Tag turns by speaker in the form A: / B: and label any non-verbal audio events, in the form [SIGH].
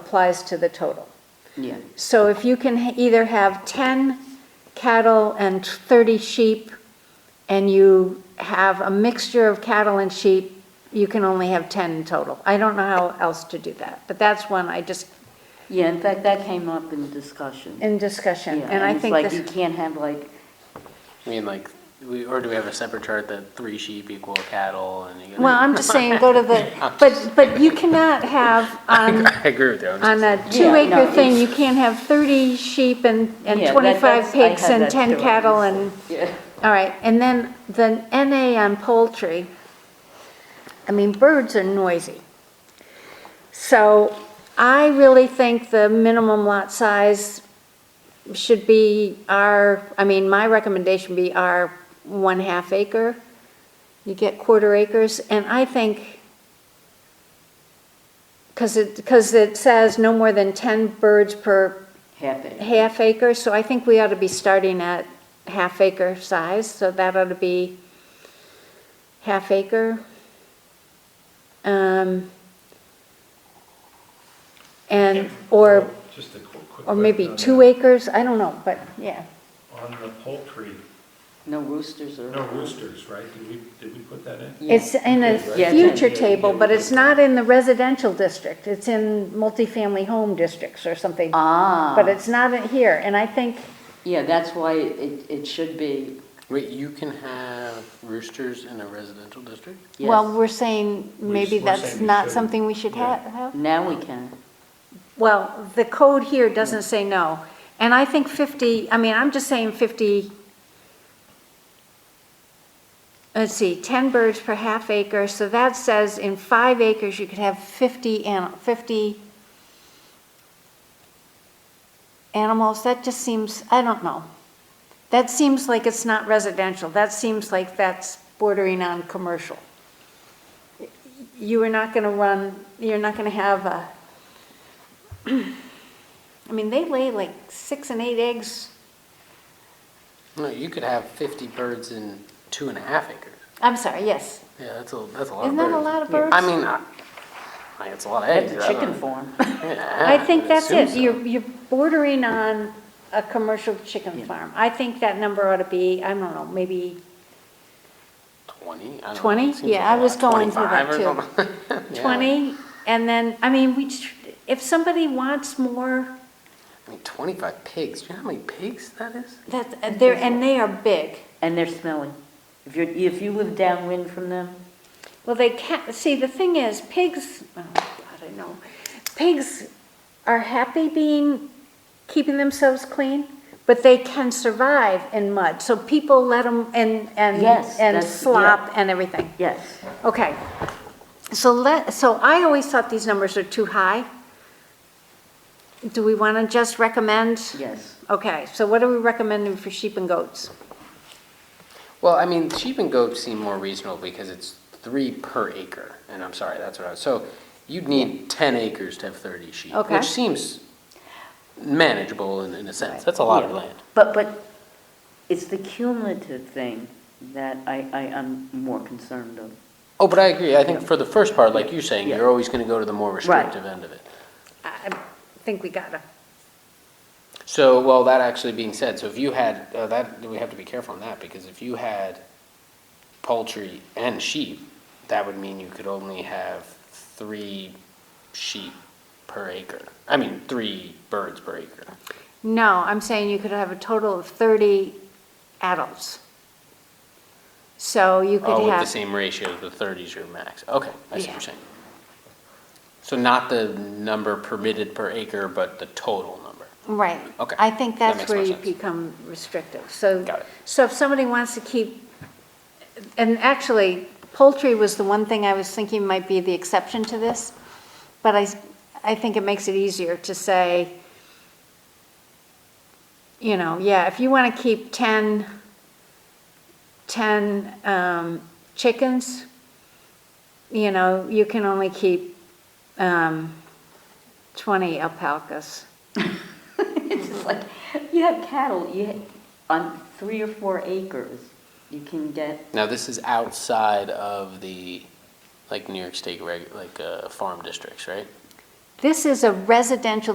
A: applies to the total.
B: Yeah,
A: So if you can ha- either have 10 cattle and 30 sheep, and you have a mixture of cattle and sheep, you can only have 10 in total. I don't know how else to do that, but that's one I just,
B: yeah, in fact, that came up in discussion.
A: in discussion,
B: Yeah,
A: and I
B: it's
A: think
B: like, you
A: this,
B: can't have like,
C: I mean, like, we, or do we have a separate chart that three sheep equal cattle and? you-
A: [LAUGHS] well, I'm just saying, go to
B: [LAUGHS]
A: the, but, but you cannot have on,
C: [LAUGHS] I agree with you. I'm just-
A: on a
B: Yeah, no,
A: two-acre thing,
B: it's-
A: you can't have 30 sheep and, and
B: Yeah, that-
A: 25
B: that's- I
A: pigs
B: had
A: and
B: that
A: 10
B: too.
A: cattle and.
B: yeah,
A: All right, and then the NA on poultry, I mean, birds are noisy. So I really think the minimum lot size should be our, I mean, my recommendation be our one-half acre. You get quarter acres, and I think, because it, because it says no more than 10 birds per
B: happen.
A: half acre, so I think we ought to be starting at half acre size, so that ought to be half acre. Um, And, or,
D: Just a quick- quick
A: or maybe
D: question
A: two
D: on
A: acres, I don't know, but, yeah.
D: that. On the poultry,
B: No roosters or.
D: no roosters, right? Did we, did we put that in?
B: Yeah.
A: It's in a
B: Yeah,
A: future
D: yeah, yeah.
A: table, but it's not in the residential district, it's in multifamily home districts or something.
B: Ah.
A: But it's not in here, and I think,
B: Yeah, that's why it, it should be,
C: Wait, you can have roosters in a residential district?
B: yes.
A: well, we're saying maybe
D: we're
A: that's
D: saying we
A: not
D: shouldn't.
A: something we should
D: Yeah.
A: ha- have.
B: Now we can.
A: Well, the code here doesn't say no. And I think 50, I mean, I'm just saying 50, let's see, 10 birds per half acre, so that says in five acres, you could have 50 an, 50 animals, that just seems, I don't know. That seems like it's not residential, that seems like that's bordering on commercial. You are not gonna run, you're not gonna have a, I mean, they lay like six and eight eggs.
C: No, you could have fifty birds in two and a half acres.
A: I'm sorry, yes.
C: Yeah, that's a, that's a lot
A: Isn't
C: of birds.
A: that a lot of birds?
C: I mean, I, I- it's a lot of eggs.
B: That's
C: I
B: a
C: don't
B: chicken
C: know.
B: farm.
C: Yeah,
A: I
C: would
A: think that's
C: Ah, assume
A: it.
C: so.
A: You're, you're bordering on a commercial chicken farm. I think that number ought to be, I don't know, maybe
C: Twenty? I don't know,
A: 20?
C: it seems
A: Yeah,
C: like
A: I
C: a
A: was
C: lot.
A: going through that
C: 25 or something. [LAUGHS] Yeah.
A: 20. And then, I mean, we, tr- if somebody wants more,
C: I mean, twenty-five pigs, do you know how many pigs that is?
A: that, uh, they're, and they are big.
B: And they're smelly. If you're, if you live downwind from them,
A: Well, they can't, see, the thing is, pigs, oh, God, I know, pigs are happy being, keeping themselves clean, but they can survive in mud, so people let them, and, and,
B: Yes,
A: and
B: that's-
A: slop and everything.
B: yes.
A: Okay, so let, so I always thought these numbers are too high. Do we want to just recommend?
B: Yes.
A: Okay, so what are we recommending for sheep and goats?
C: Well, I mean, sheep and goats seem more reasonable because it's three per acre, and I'm sorry, that's what I was, so you'd need ten acres to have thirty sheep,
A: Okay.
C: which seems manageable in, in a sense, that's a lot of
B: Yeah.
C: land.
B: But, but it's the cumulative thing that I, I am more concerned of.
C: Oh, but I agree, I think for the first part, like you're saying,
B: Yeah.
C: you're always gonna go to the more restrictive end of it.
A: I I think we gotta,
C: So, well, that actually being said, so if you had, uh, that, we have to be careful on that, because if you had poultry and sheep, that would mean you could only have three sheep per acre. I mean, three birds per acre.
A: no, I'm saying you could have a total of 30 adults. So you could have.
C: Oh, with the same ratio, the thirty's your max. Okay, I see what
A: Yeah.
C: you're saying. So not the number permitted per acre, but the total number.
A: Right.
C: Okay.
A: I think
C: That
A: that's
C: makes
A: where
C: more
A: you
C: sense.
A: become restrictive. So,
C: Got it.
A: so if somebody wants to keep, and actually poultry was the one thing I was thinking might be the exception to this, but I, s- I think it makes it easier to say, you know, yeah, if you want to keep 10, 10 um, chickens, you know, you can only keep um, 20 alpacas.
B: [LAUGHS] It's just like, you have cattle, you, ha- on three or four acres, you can get,
C: Now, this is outside of the, like, New York State, reg- like, uh, farm districts, right?
A: This is a residential